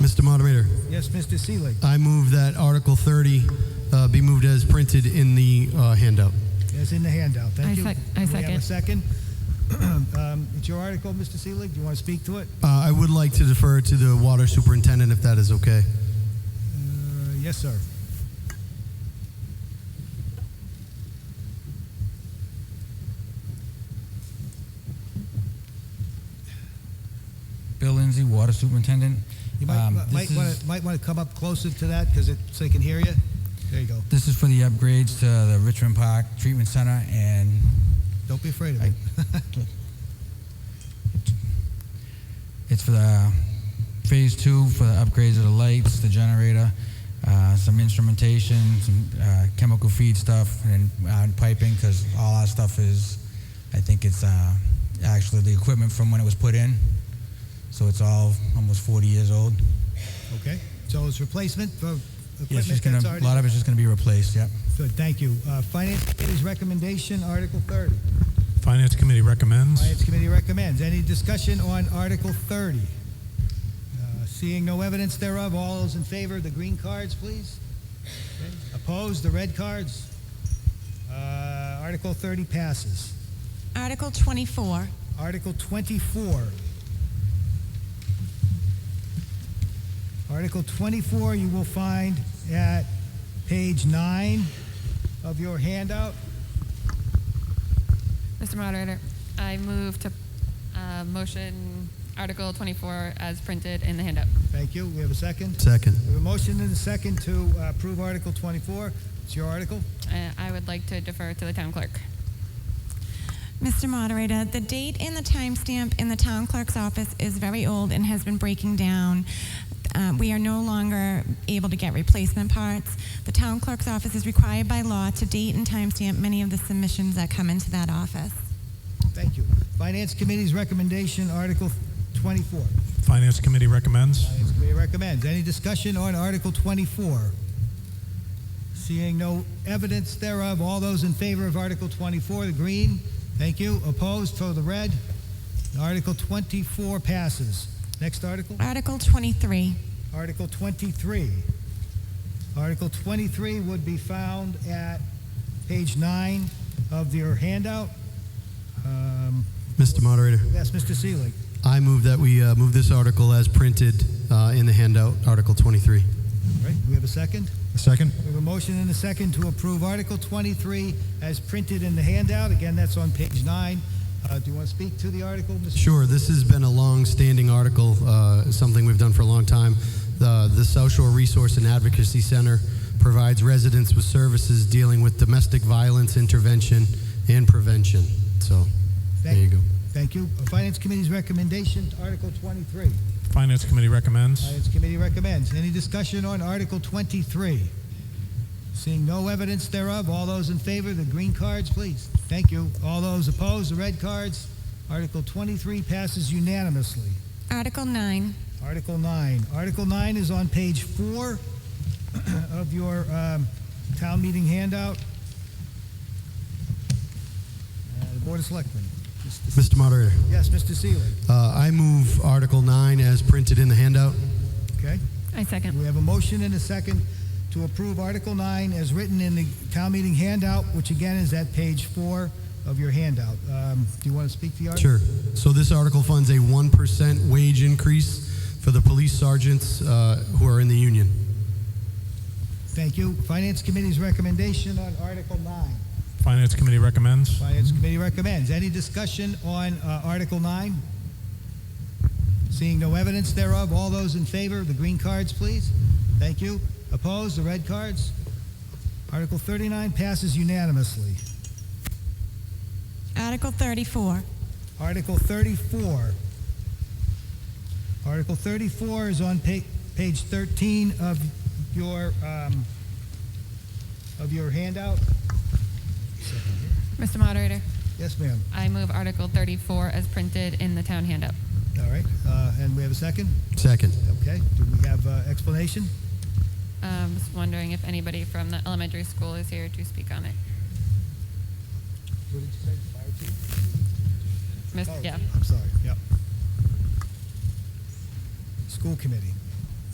Mr. Moderator, Yes, Mr. Seelig. I move that Article 30 uh, be moved as printed in the uh, handout. Yes, in the handout. Thank I you. sec- I Do we have a second? second. Um, It's your article, Mr. Seelig. Do you want to speak to it? Uh, I would like to defer to the water superintendent if that is okay. Uh, Yes, sir. Bill Lindsay, Water Superintendent. You Um, might, might this want is- to, might want to come up closer to that because it, so they can hear you. There you go. This is for the upgrades to the Richmond Park Treatment Center, and Don't be afraid of it. it's for the Phase Two for the upgrades of the lights, the generator, uh, some instrumentation, some uh, chemical feed stuff, and uh, piping, because all our stuff is, I think it's uh, actually the equipment from when it was put in, so it's all almost 40 years old. Okay? So it's replacement for Yeah, it's equipment just gonna, that's a already... lot of it's just gonna be replaced, yep. Good, thank you. Uh, Finance Committee's recommendation, Article 30. Finance Committee recommends. Finance Committee recommends. Any discussion on Article 30? Uh, Seeing no evidence thereof, all those in favor, the green cards, please. Okay. Opposed, the red cards? Uh, Article 30 passes. Article 24, Article 24. Article 24, you will find at page 9 of your handout. Mr. Moderator, I move to uh, motion Article 24 as printed in the handout. Thank you. We have a second? Second. We have a motion and a second to uh, approve Article 24. It's your article. Uh, I would like to defer to the town clerk. Mr. Moderator, the date and the timestamp in the town clerk's office is very old and has been breaking down. Uh, we are no longer able to get replacement parts. The town clerk's office is required by law to date and timestamp many of the submissions that come into that office. Thank you. Finance Committee's recommendation, Article 24. Finance Committee recommends. Finance Committee recommends. Any discussion on Article 24? Seeing no evidence thereof, all those in favor of Article 24, the green, thank you. Opposed, for the red. Article 24 passes. Next article? Article 23. Article 23. Article 23 would be found at page 9 of your handout. Um, Mr. Moderator, Yes, Mr. Seelig. I move that we uh, move this article as printed uh, in the handout, Article 23. All right, do we have a second? Second. We have a motion and a second to approve Article 23 as printed in the handout. Again, that's on page 9. Uh, Do you want to speak to the article, Mr.? Sure, this has been a long-standing article, uh, something we've done for a long time. The, the South Shore Resource and Advocacy Center provides residents with services dealing with domestic violence intervention and prevention. So, there you go. Thank you. Finance Committee's recommendation, Article 23. Finance Committee recommends. Finance Committee recommends. Any discussion on Article 23? Seeing no evidence thereof, all those in favor, the green cards, please. Thank you. All those opposed, the red cards. Article 23 passes unanimously. Article 9. Article 9. Article 9 is on page 4 of your um, town meeting handout. Uh, The Board of Selectmen. Mr. Moderator, Yes, Mr. Seeley. uh, I move Article 9 as printed in the handout. Okay. I second. We have a motion and a second to approve Article 9 as written in the town meeting handout, which again is at page 4 of your handout. Um, Do you want to speak to the article? Sure. So this article funds a 1% wage increase for the police sergeants uh, who are in the union. Thank you. Finance Committee's recommendation on Article 9. Finance Committee recommends. Finance Committee recommends. Any discussion on uh, Article 9? Seeing no evidence thereof, all those in favor, the green cards, please. Thank you. Opposed, the red cards? Article 39 passes unanimously. Article 34. Article 34. Article 34 is on pa- page 13 of your, um, of your handout. Mr. Moderator, Yes, ma'am. I move Article 34 as printed in the town handout. All right, uh, and we have a second? Second. Okay, do we have uh, explanation? Um, just wondering if anybody from the elementary school is here to speak on it. What did you say, fire chief? Miss- Oh, yeah. I'm sorry, yep. School committee.